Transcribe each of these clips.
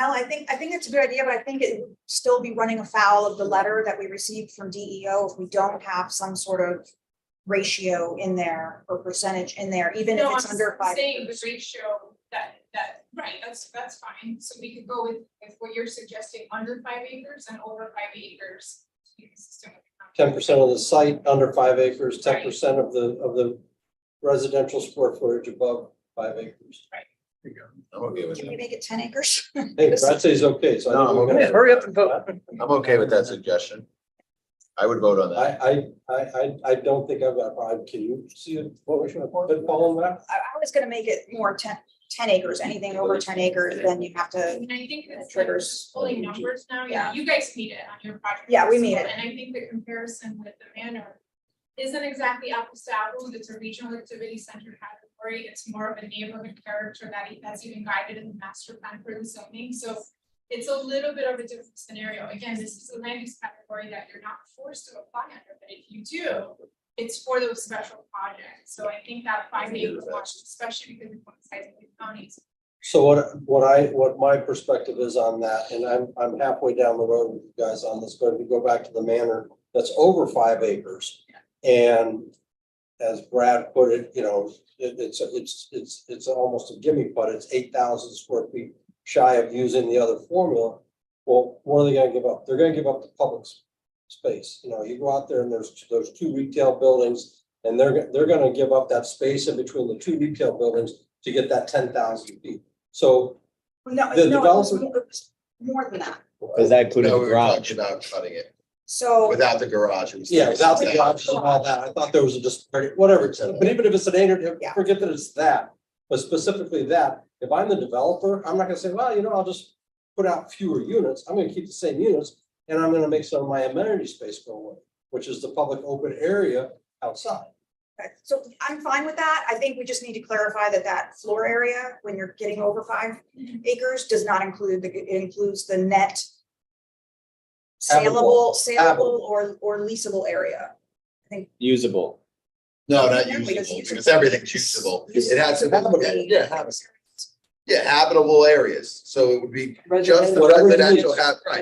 Al, I think, I think it's a good idea, but I think it would still be running afoul of the letter that we received from DEO if we don't have some sort of ratio in there or percentage in there, even if No, it's I'm under five. Saying the ratio that, that, right, that's, that's fine, so we could go with, with what you're suggesting, under five acres and over five acres. to be consistent with the ten percent of the site under five acres, ten Right. percent of the, of the residential square footage above five acres. I'm okay with Can that. we make it ten acres? Hey, Brad says okay, so. I think No, I'm we're okay. gonna- Hurry up and vote. I'm okay with that suggestion. I would vote on that. I, I, I, I, I don't think I've got a problem. Can you see it? what was your pinball on that? I, I was gonna make it more 10 10 acres, anything over ten acres, then you have to, And I think that's like Triggers. just pulling numbers now, yeah, Yeah. you guys meet it on your project. Yeah, we as meet well, it. And I think the comparison with the manor isn't exactly apples to apples, it's a regional activity center category, it's more of a neighborhood character that e- that's even guided in the master plan for the zoning, so it's a little bit of a different scenario, again, this is a land use category that you're not forced to apply under, but if you do, it's for those special projects, so I think that five Agree acre with that. watch, especially because of the size of the counties, So what, what I, what my perspective is on that, and I'm, I'm halfway down the road with you guys on this, but if we go back to the manor, that's over five acres. And as Brad put it, you know, it, it's, it's, it's, it's almost a gimme, but it's eight thousand square feet shy of using the other formula. Well, what are they gonna give up? They're gonna give up the public s- space. You know, you go out there and there's, there's two retail buildings. And they're, go- they're gonna give up that space in between the two retail buildings to get that ten thousand feet. So no, The no, it was developer- more- it was more than that. Does that include No, a we were garage? talking about cutting it So, without the garage. it was Yeah, without the 10%. option and all that, I thought there was a disparity, whatever, it's- but even if it's an eight, or- Yeah. forget that it's that. But specifically that, if I'm the developer, I'm not gonna say, well, you know, I'll just put out fewer units, I'm gonna keep the same units. And I'm gonna make some of my amenity space go away, which is the public open area outside. so I'm fine with that. I think we just need to clarify that that floor area, when you're getting over five acres, does not include, the it includes the net saleable, Habitable. saleable or, or leasable area. Usable. No, Because not usable, usable- because everything's usable. It has to be, Usability. yeah, habit- yeah, habitable areas. So it would be just the Whatever it is. residential, hab- right.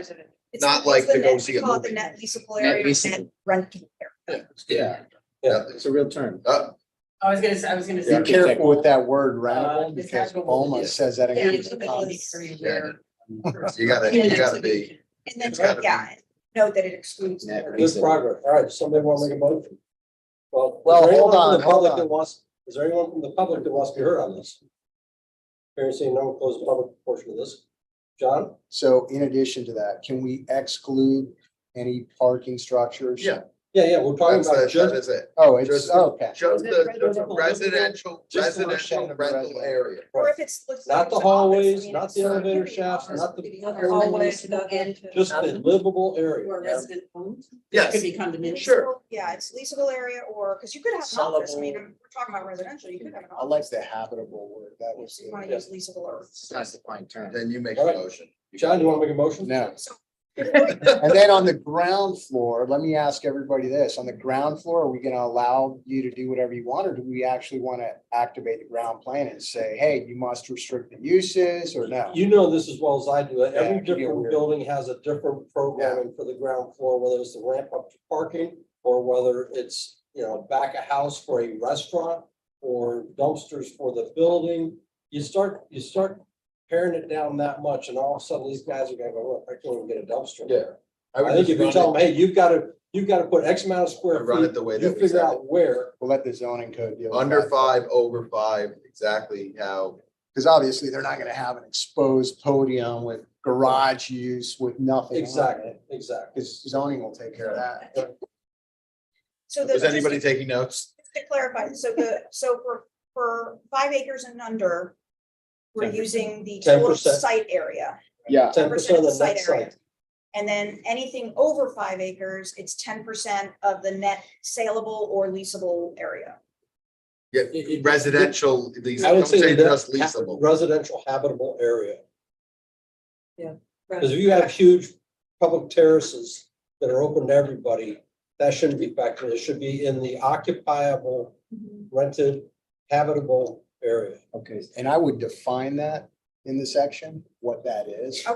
It's- Not it's like to the go net- see a call it the movie. Net leasable Net area, leasable. net rental area. Yeah. Yeah. It's a real term. Uh, I was gonna, say- I was gonna Be say. Yeah. careful with that word Uh, rentable because it's not- Boma says that. Yeah, includes it's the a bit of cost. a history Yeah. where- You gotta, you gotta be, And It's then, gotta be- yeah, note that it excludes. Net the- lease. Good progress, all right, somebody wanna make a motion? Well, is Well, there anyone hold from on, the hold public on. that wants- Is there anyone from the public that wants to be heard on this? Hearing seeing no one close the public portion of this. John? So in addition to that, can we exclude any parking structures? Yeah. Yeah, yeah, we're talking that's, about that just is it. Oh, it's, Just- okay. Just the just the Residential. residential, Just the residential residential. rental area. Or if it's. let's say Not it's the an office, I hallways, mean, not it's the not- elevator shafts, not the, The Other hallways ways to get to just the livable area. where resident homes. Yes. Could be condominium. Sure. Yeah, it's leasable area or, because you could have an office, I mean, I'm- we're talking about residential, you could have an I office. like the habitable word. That was. If you want to use leasable or. It's not a defined term. Then you make All a right. motion. John, you wanna make a motion? No. So And then on the ground floor, let me ask everybody this, on the ground floor, are we gonna allow you to do whatever you want? Or do we actually want to activate the ground plan and say, hey, you must restrict the uses or no? You know this as well as I do. Yeah, Every it can get different weird. building has a different programming for the ground floor, whether it's the ramp up to parking or whether it's, you know, back a house for a restaurant or dumpsters for the building. You start, you start paring it down that much and all of a sudden these guys are gonna go, look, I can't even get a dumpster Yeah. there. I think if you tell them, hey, you've gotta, you've gotta put X amount of square Run it feet, the way you that we figure said it. out where. We'll let the zoning code deal. with Under that. five, over five, exactly how Because obviously they're not gonna have an exposed podium with garage use with nothing. on it, Exactly, exactly. Because zoning will take care of that. So the. Was anybody taking notes? just To clarify, so the, so for, for five acres and under, we're 10%. using the total 10%. site area. Yeah. Ten percent of the site net area. site. And then anything over five acres, it's ten percent of the net saleable or leasable area. Yeah, It- it- residential, these, I would don't say say that just leasable. residential habitable area. Because Right. if you have huge public terraces that are open to everybody, that shouldn't be factored. It should be in the Mm-hmm. occupiable, rented, habitable area. Okay, and I would define that in the section, what that is.